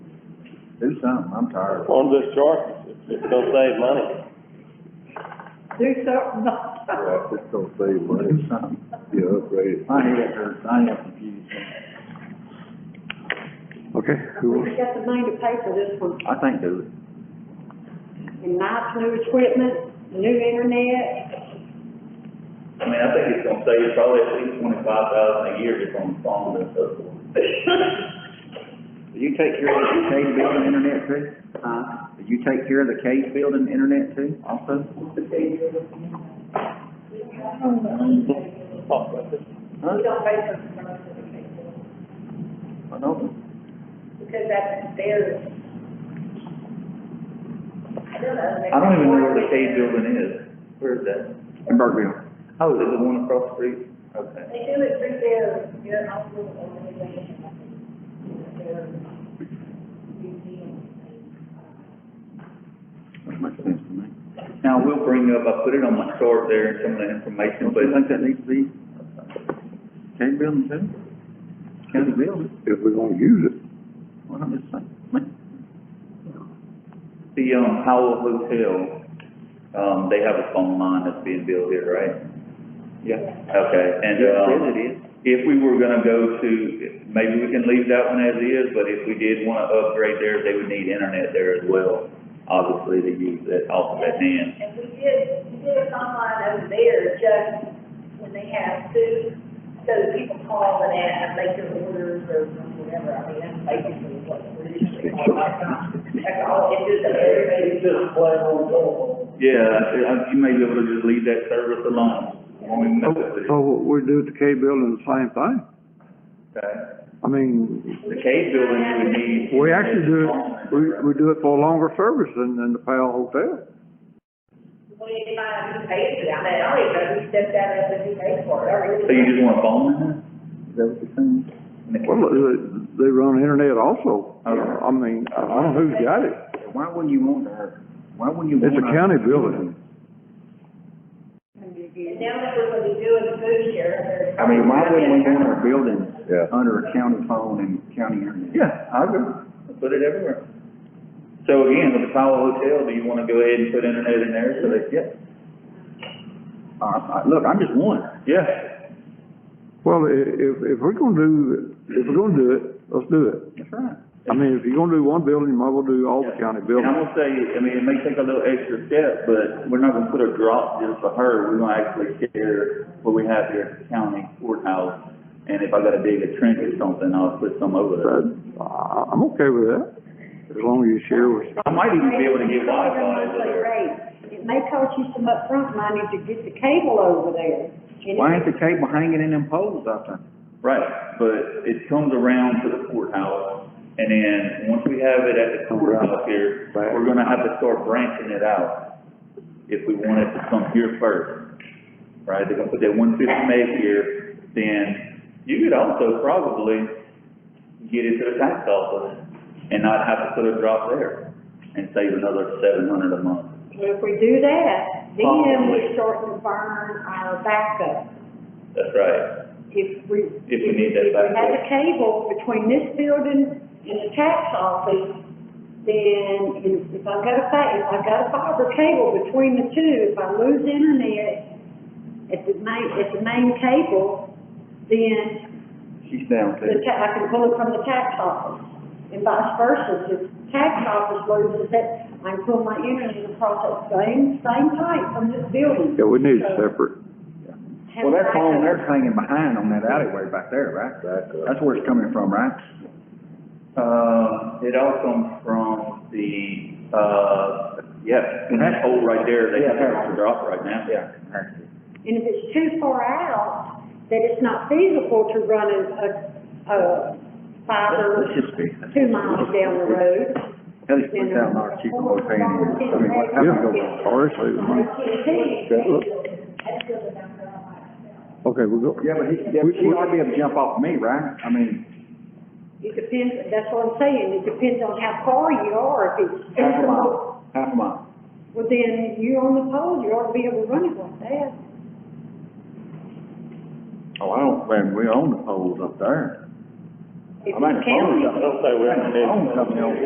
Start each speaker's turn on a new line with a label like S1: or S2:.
S1: Do something, I'm tired.
S2: on this chart, it's gonna save money.
S3: Do something, not
S4: Right, it's gonna save money,
S1: Do something.
S4: you upgrade it.
S1: My head hurts, I am confused.
S4: Okay, who
S3: We've
S4: was,
S3: got the money to pay for this one,
S1: I think do it.
S3: and nice new equipment, new internet,
S5: I mean, I think it's gonna save probably at least twenty-five thousand a year just on the phone and so forth.
S1: Do you take care of the case building internet too? Huh? Do you take care of the case building internet too, also?
S6: We don't pay for the service of the
S1: I
S6: cable,
S1: don't.
S6: because that's theirs. I don't know. they-
S5: I don't even know where the Cade building is. Where is that?
S1: In Burkeville.
S5: Oh, is it the one across the street? Okay.
S6: They do it through their, their hospital or their- their museum.
S1: That makes sense to me.
S5: Now, we'll bring up, I put it on my chart there and some of that information,
S1: Don't you
S5: but
S1: think that needs to be case building too? County building,
S4: if we're gonna use it,
S1: what I'm just saying, man.
S5: the, um, Howell Hotel, um, they have a phone line that's being built here, right?
S1: Yeah.
S5: Okay, and, um,
S1: Yes, it is.
S5: if we were gonna go to, maybe we can leave that one as is, but if we did wanna upgrade there, they would need internet there as well, obviously, to use that off of that hand.
S6: And we did, we did a online over there just when they have food, so that people call and ask, make their orders or whatever, I mean, that's basically what we're usually all about. That's all, it's just everybody's just playing on telephone.
S5: Yeah, I- you may be able to just leave that service alone, when we mess up with it,
S4: so Oh, what we do at the K building, the same thing.
S5: okay?
S4: I mean,
S5: The cave building, you would need.
S4: we actually do, it. we, we do it for a longer service than, than the Powell Hotel.
S6: Well, you might have to pay for that, I mean, I don't even know who stepped out of the new pay for it, I really.
S5: So you just want a phone
S1: Is that what you're saying?
S5: in there?
S4: Well, they- they run internet also,
S5: Okay.
S4: I mean, I don't know who's got it,
S1: Why wouldn't you want our, why wouldn't you want
S4: it's a
S1: our-
S4: county building.
S6: And now that we're gonna be doing the food share, there's.
S1: I mean, why wouldn't we want our buildings
S4: Yeah.
S1: under a county phone and county internet?
S4: Yeah, I agree.
S5: Put it everywhere. So again, with the Powell Hotel, do you wanna go ahead and put internet in there, so they, yeah,
S1: Uh, I- look, I'm just one.
S5: yeah.
S4: Well, i- if, if we're gonna do, if we're gonna do it, let's do it.
S1: That's right.
S4: I mean, if you're gonna do one building, you might as well do all the
S5: And
S4: county
S5: I'm
S4: buildings.
S5: gonna say, I mean, it may take a little extra step, but we're not gonna put a drop just for her, we're gonna actually share what we have here at the county courthouse. And if I gotta dig a trench or something, I'll put some over there.
S4: But I, I'm okay with that, as long as you share with,
S5: I might even be able to get Wi-Fi over there.
S3: Great. It may cost you some upfront money to get the cable over there. And
S1: Why
S3: it-
S1: ain't the cable hanging in them poles out there?
S5: Right, but it comes around to the courthouse, and then, once we have it at the courthouse here,
S4: Right.
S5: we're gonna have to start branching it out, if we want it to come here first. Right, they're gonna put that one fifty meg here, then you could also probably get it to the tax office and not have to put a drop there, and save another seven hundred a month.
S3: If we do that, then
S5: Possibly.
S3: we're starting to burn our backup.
S5: That's right,
S3: If we.
S5: If we need that
S3: If we had
S5: backup.
S3: the cable between this building and the tax office, then if- if I got a fa, if I got a fiber cable between the two, if I lose internet at the main, at the main cable, then
S1: She's down too.
S3: the ta, I can pull it from the tax office, and vice versa, if the tax office loses it, I can pull my internet across that same, same pipe from this building.
S4: yeah, we need it separate.
S3: Have
S1: Well, that phone
S3: backup.
S1: there's hanging behind on that alleyway back there, right? That's where it's coming from, right?
S5: Uh, it all comes from the, uh, yeah, and that hole right there, they have to drop right now.
S1: Yeah.
S3: And if it's too far out, that it's not feasible to run a, a, a
S1: Let's
S3: fiber
S1: just be.
S3: two miles down the road.
S1: At least put down our cheap old fan. I mean, what, how do you go wrong?
S4: Yeah, or it's leaving money.
S6: That's still the number I like.
S4: Okay, we'll go.
S1: Yeah, but he, yeah, but she ought to be able to jump off me, right? I mean,
S3: It depends, that's what I'm saying, it depends on how far you are, if it's
S1: half a
S3: feasible.
S1: mile, half a mile.
S3: Well, then, you're on the pole, you ought to be able to run it like that.
S1: Oh, I don't, man, we own the poles up there. I
S3: If
S1: mean,
S3: it's county.
S2: Don't say we don't need.
S1: I own something else.